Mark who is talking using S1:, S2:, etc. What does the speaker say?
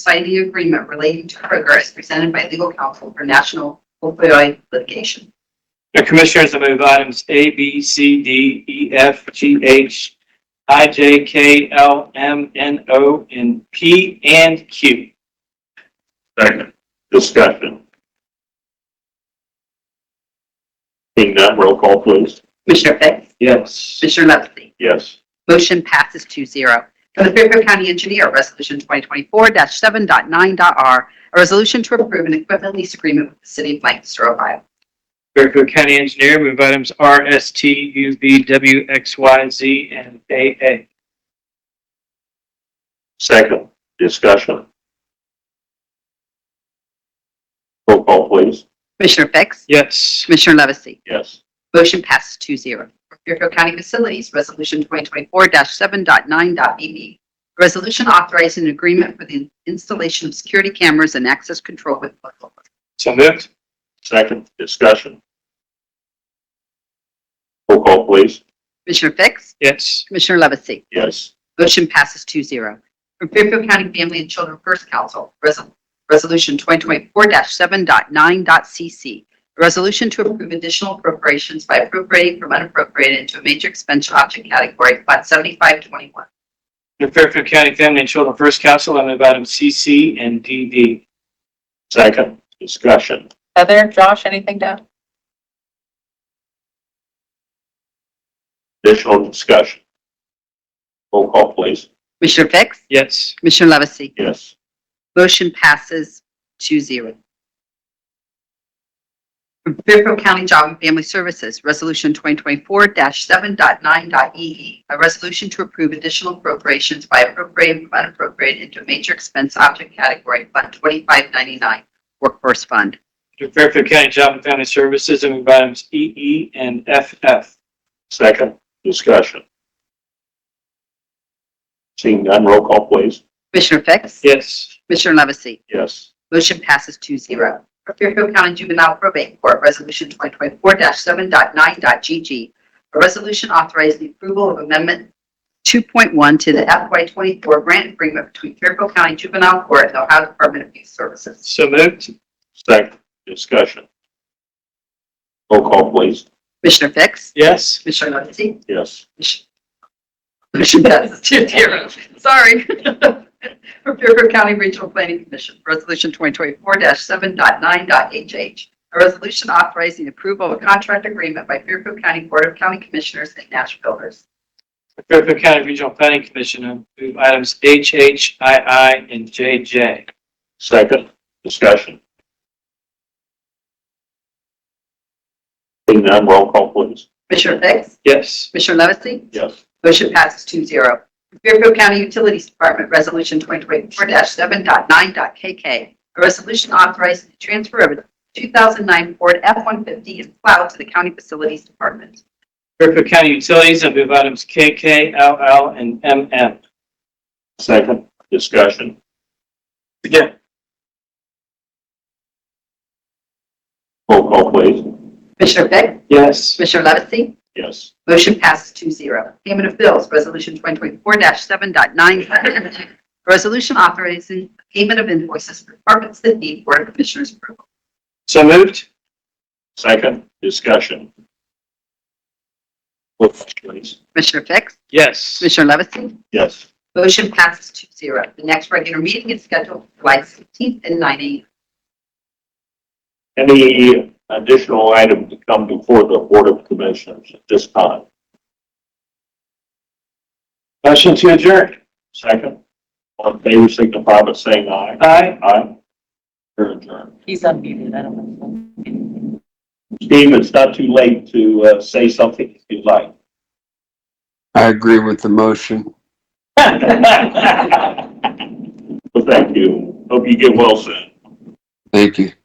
S1: Society Agreement relating to progress presented by legal counsel for national opioid litigation.
S2: Your commissioners, I move items A, B, C, D, E, F, G, H, I, J, K, L, M, N, O, and P and Q.
S3: Second. Discussion. Seeing none, roll call please.
S1: Commissioner Fix?
S2: Yes.
S1: Commissioner Levesey?
S3: Yes.
S1: Motion passes 2-0. From the Fairfield County Engineer, Resolution 2024-7.9.r, a resolution to approve an equipment lease agreement with the City of Lancaster, Ohio.
S2: Fairfield County Engineer, move items R, S, T, U, V, W, X, Y, Z, and A, A.
S3: Second. Discussion. Roll call please.
S1: Commissioner Fix?
S2: Yes.
S1: Commissioner Levesey?
S3: Yes.
S1: Motion passes two zero. Fairfield County Facilities, Resolution 2024-7.9.bb. A Resolution authorizing an agreement for the installation of security cameras and access control with local.
S2: So moved.
S3: Second. Discussion. Roll call please.
S1: Commissioner Fix?
S2: Yes.
S1: Commissioner Levesey?
S3: Yes.
S1: Motion passes two zero. From Fairfield County Family and Children First Council, Resol- Resolution 2024-7.9.cc. A Resolution to approve additional appropriations by appropriating from unappropriated into a major expense object category, Fund 7521.
S2: Your Fairfield County Family and Children First Council, I move items C, C, and D, D.
S3: Second. Discussion.
S4: Heather, Josh, anything to add?
S3: Additional discussion. Roll call please.
S1: Commissioner Fix?
S2: Yes.
S1: Commissioner Levesey?
S3: Yes.
S1: Motion passes 2-0. From Fairfield County Job and Family Services, Resolution 2024-7.9.e.e. E A resolution to approve additional appropriations by appropriating from unappropriated into a major expense object category, Fund 2599, Workforce Fund.
S2: Your Fairfield County Job and Family Services, I move items E, E, and F, F.
S3: Second. Discussion. Seeing none, roll call please.
S1: Commissioner Fix?
S2: Yes.
S1: Commissioner Levesey?
S3: Yes.
S1: Motion passes two zero. For Fairfield County Juvenile Probate Court, Resolution 2024-7.9.g.g. A resolution authorizing the approval of Amendment 2.1 to the FY24 grant agreement between Fairfield County Juvenile Court and the Ohio Department of Youth Services.
S2: So moved.
S3: Second. Discussion. Roll call please.
S1: Commissioner Fix?
S2: Yes.
S1: Commissioner Levesey?
S3: Yes.
S1: Motion passes two zero. Sorry. For Fairfield County Regional Planning Commission, Resolution 2024-7.9.h.h. A resolution authorizing approval of a contract agreement by Fairfield County Board of County Commissioners and Nash Builders.
S2: Fairfield County Regional Planning Commission, I move items H, H, I, I, and J, J.
S3: Second. Discussion. Seeing none, roll call please.
S1: Commissioner Fix?
S2: Yes.
S1: Commissioner Levesey?
S3: Yes.
S1: Motion passes two zero. Fairfield County Utilities Department Resolution 2024-7.9.k.k. A resolution authorizing the transfer of a 2009 Ford F-150 and plow to the County Facilities Department.
S2: Fairfield County Utilities, I move items K, K, L, L, and M, M.
S3: Second. Discussion.
S2: Again.
S3: Roll call please.
S1: Commissioner Fix?
S2: Yes.
S1: Commissioner Levesey?
S3: Yes.
S1: Motion passes two zero. Payment of bills, Resolution 2024-7.9. Resolution authorizing payment of invoices for departments that need Board of Commissioners approval.
S2: So moved.
S3: Second. Discussion. Roll call please.
S1: Commissioner Fix?
S2: Yes.
S1: Commissioner Levesey?
S3: Yes.
S1: Motion passes two zero. The next regular meeting is scheduled for July 16th at 9 a.m.
S3: Any additional item to come before the Board of Commissioners at this time? Motion to adjourn. Second. All in favor, signify by saying aye.
S2: Aye.
S3: Aye. We're adjourned.
S4: He's unmuted, I don't know.
S3: Steve, it's not too late to uh, say something if you'd like.
S5: I agree with the motion.
S3: Well, thank you. Hope you get well soon.
S5: Thank you.